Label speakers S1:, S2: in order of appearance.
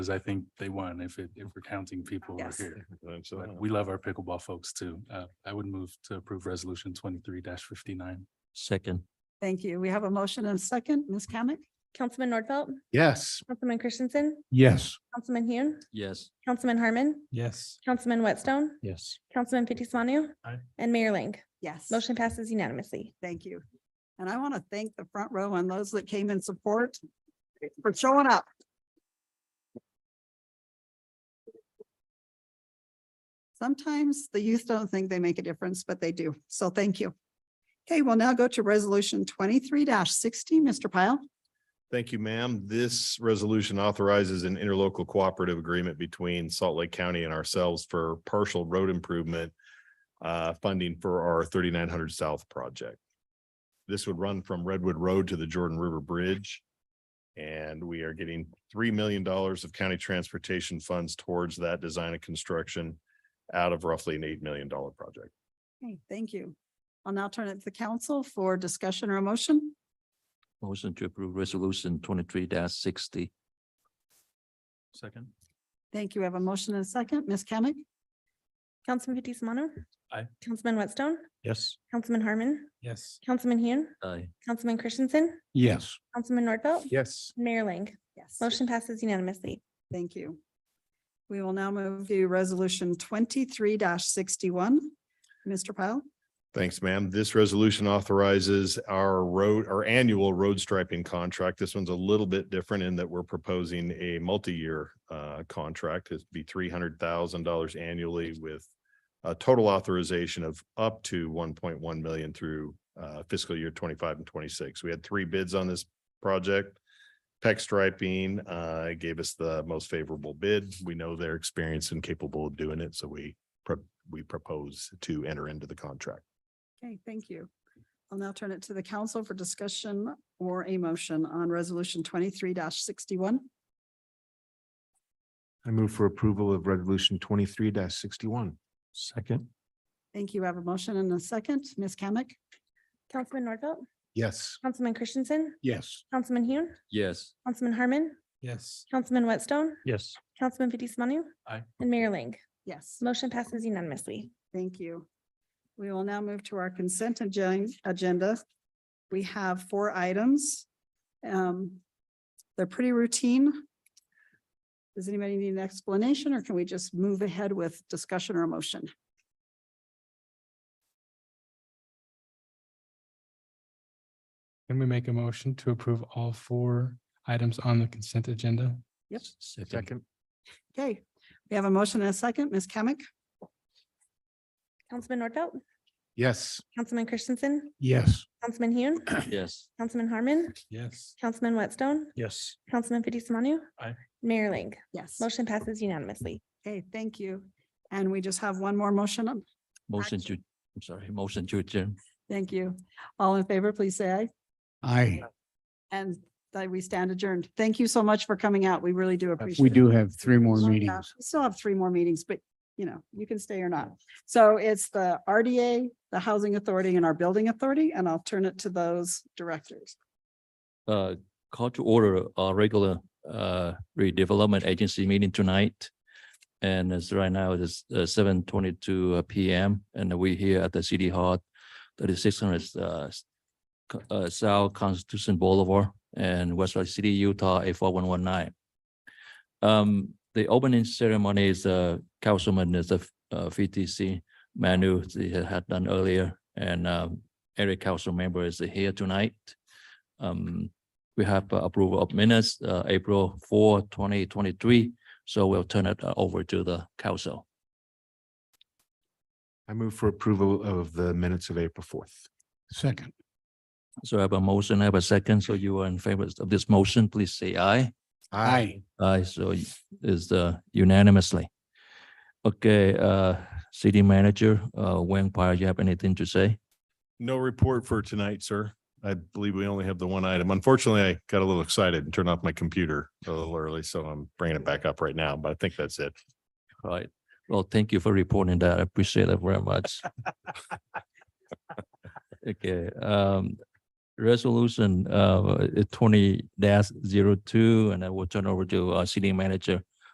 S1: because I think they won if it, if we're counting people who are
S2: Yes.
S1: here.
S3: And so,
S1: But we love our pickleball folks too. Uh, I would move to approve resolution twenty-three fifty-nine.
S4: Second,
S2: Thank you. We have a motion and second. Ms. Kamic?
S5: Councilman Nordfelt,
S6: Yes.
S5: Councilman Christensen,
S6: Yes.
S5: Councilman Hune,
S4: yes.
S5: Councilman Harmon,
S6: Yes.
S5: Councilman Whitstone,
S4: Yes.
S5: Councilman Fitzie Umanu,
S1: Aye.
S5: and Mayor Ling.
S2: Yes.
S5: Motion passes unanimously.
S2: Thank you. And I want to thank the front row and those that came in support for showing up. Sometimes the youth don't think they make a difference, but they do. So thank you. Okay, we'll now go to resolution twenty-three sixty. Mr. Pyle?
S3: Thank you, ma'am. This resolution authorizes an interlocal cooperative agreement between Salt Lake County and ourselves for partial road improvement uh, funding for our thirty-nine hundred South project. This would run from Redwood Road to the Jordan River Bridge. And we are getting three million dollars of county transportation funds towards that design and construction out of roughly an eight million dollar project.
S2: Okay, thank you. I'll now turn it to the council for discussion or a motion.
S4: Motion to approve resolution twenty-three sixty.
S1: Second.
S2: Thank you. We have a motion and a second. Ms. Kamic?
S5: Councilman Fitzie Umanu.
S1: Aye.
S5: Councilman Whitstone,
S6: Yes.
S5: Councilman Harmon,
S6: Yes.
S5: Councilman Hune,
S4: Aye.
S5: Councilman Christensen,
S6: Yes.
S5: Councilman Nordfelt,
S6: Yes.
S5: Mayor Ling.
S2: Yes.
S5: Motion passes unanimously.
S2: Thank you. We will now move to resolution twenty-three sixty-one. Mr. Pyle?
S3: Thanks, ma'am. This resolution authorizes our road, our annual road striping contract. This one's a little bit different in that we're proposing a multi-year uh, contract. It'd be three hundred thousand dollars annually with a total authorization of up to one point one million through uh, fiscal year twenty-five and twenty-six. We had three bids on this project. Peck Striping uh, gave us the most favorable bid. We know they're experienced and capable of doing it, so we pro- we propose to enter into the contract.
S2: Okay, thank you. I'll now turn it to the council for discussion or a motion on resolution twenty-three sixty-one.
S6: I move for approval of resolution twenty-three sixty-one. Second.
S2: Thank you. I have a motion and a second. Ms. Kamic?
S5: Councilman Nordfelt,
S6: Yes.
S5: Councilman Christensen,
S6: Yes.
S5: Councilman Hune,
S4: Yes.
S5: Councilman Harmon,
S6: Yes.
S5: Councilman Whitstone,
S4: Yes.
S5: Councilman Fitzie Umanu.
S1: Aye.
S5: And Mayor Ling.
S2: Yes,
S5: Motion passes unanimously.
S2: thank you. We will now move to our consent agen- agenda. We have four items. Um, They're pretty routine. Does anybody need an explanation or can we just move ahead with discussion or a motion?
S7: Can we make a motion to approve all four items on the consent agenda?
S2: Yep.
S4: Second,
S2: Okay, we have a motion and a second. Ms. Kamic?
S5: Councilman Nordfelt,
S6: Yes.
S5: Councilman Christensen,
S6: Yes.
S5: Councilman Hune,
S4: yes.
S5: Councilman Harmon,
S7: Yes.
S5: Councilman Whitstone,
S6: Yes.
S5: Councilman Fitzie Umanu.
S1: Aye.
S5: Mayor Ling.
S2: Yes.
S5: Motion passes unanimously.
S2: Okay, thank you. And we just have one more motion. up.
S4: Motion to, I'm sorry, motion to adjourn.
S2: Thank you. All in favor, please say aye.
S6: I,
S2: And that we stand adjourned. Thank you so much for coming out. We really do appreciate it.
S6: we do have three more
S2: Oh, yeah.
S6: meetings.
S2: We Still have three more meetings, but you know, you can stay or not. So it's the RDA, the Housing Authority and our Building Authority, and I'll turn it to those directors.
S4: Uh, call to order our regular uh redevelopment agency meeting tonight. And it's right now it is uh, seven twenty-two PM and we here at the city hall, thirty-six hundred uh s- co- uh South Constitution Boulevard and West Valley City, Utah, eight four one one nine. Um, the opening ceremony is uh Councilman is the uh VTC Manu he had done earlier and um every council member is here tonight. Um, we have uh, approval of minutes, uh, April 4, 2023. So we'll turn it uh, over to the council.
S6: I move for approval of the minutes of April fourth. Second.
S4: So I have a motion, I have a second. So you are in favor of this motion, please say aye.
S6: I.
S4: Aye, so y- is uh, unanimously. Okay, uh, city manager, uh, Wayne Pyle, you have anything to say?
S3: No report for tonight, sir. I believe we only have the one item. Unfortunately, I got a little excited and turned off my computer a little early, so I'm bringing it back up right now, but I think that's it.
S4: All right. Well, thank you for reporting that. I appreciate it very much. Okay, um, resolution, uh, twenty dash zero two, and I will turn over to our city manager,